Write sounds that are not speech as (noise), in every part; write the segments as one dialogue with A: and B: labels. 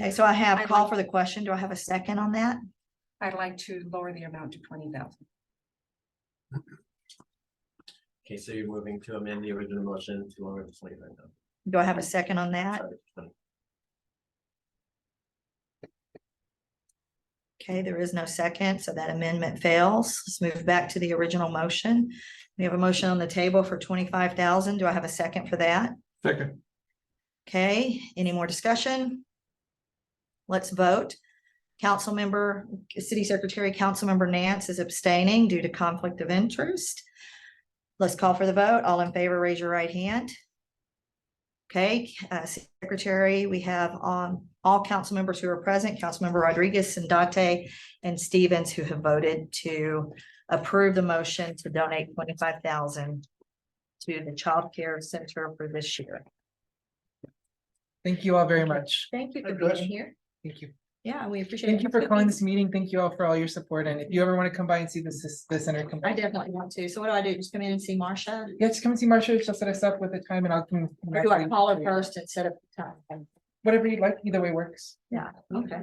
A: Okay, so I have
B: I'd
A: call
B: like-
A: for the question. Do I have a second on that?
B: I'd like to lower the amount to twenty thousand.
C: Okay, so you're moving to amend the original motion to lower the twenty-five thousand.
A: Do I have a second on that? Okay, there is no second, so that amendment fails. Let's move back to the original motion. We have a motion on the table for twenty-five thousand. Do I have a second for that?
D: Second,
A: Okay, any more discussion? Let's vote. Councilmember, City Secretary, Councilmember Nance is abstaining due to conflict of interest. Let's call for the vote. All in favor, raise your right hand. Okay, uh, City Secretary, we have um all council members who are present, Councilmember Rodriguez, Sandate, and Stevens who have voted to approve the motion to donate twenty-five thousand to the Child Care Center for this year.
E: Thank you all very much.
A: Thank you
D: for being Address.
A: here.
E: Thank you.
A: Yeah, we appreciate it.
E: Thank you for calling this meeting. Thank you all for all your support. And if you ever want to come by and see this, this- the center, come
A: I
E: by.
A: definitely want to. So what do I do? Just come in and see Marcia?
E: Yeah, just come and see Marcia. She'll set us up with a time and I'll come.
A: Or do I call her first and set up the time?
E: Whatever you like, either way works.
A: Yeah, okay.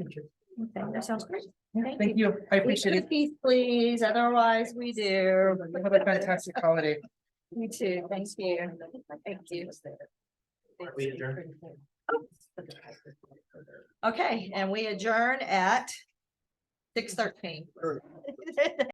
A: Okay, that sounds great.
E: Yeah,
A: Thank
E: Thank you. I appreciate it.
A: Peace, please. Otherwise, we do.
E: Have a fantastic holiday.
A: You too. Thank you. Thank you.
C: We adjourn. (laughs)
A: Okay, and we adjourn at six thirteen.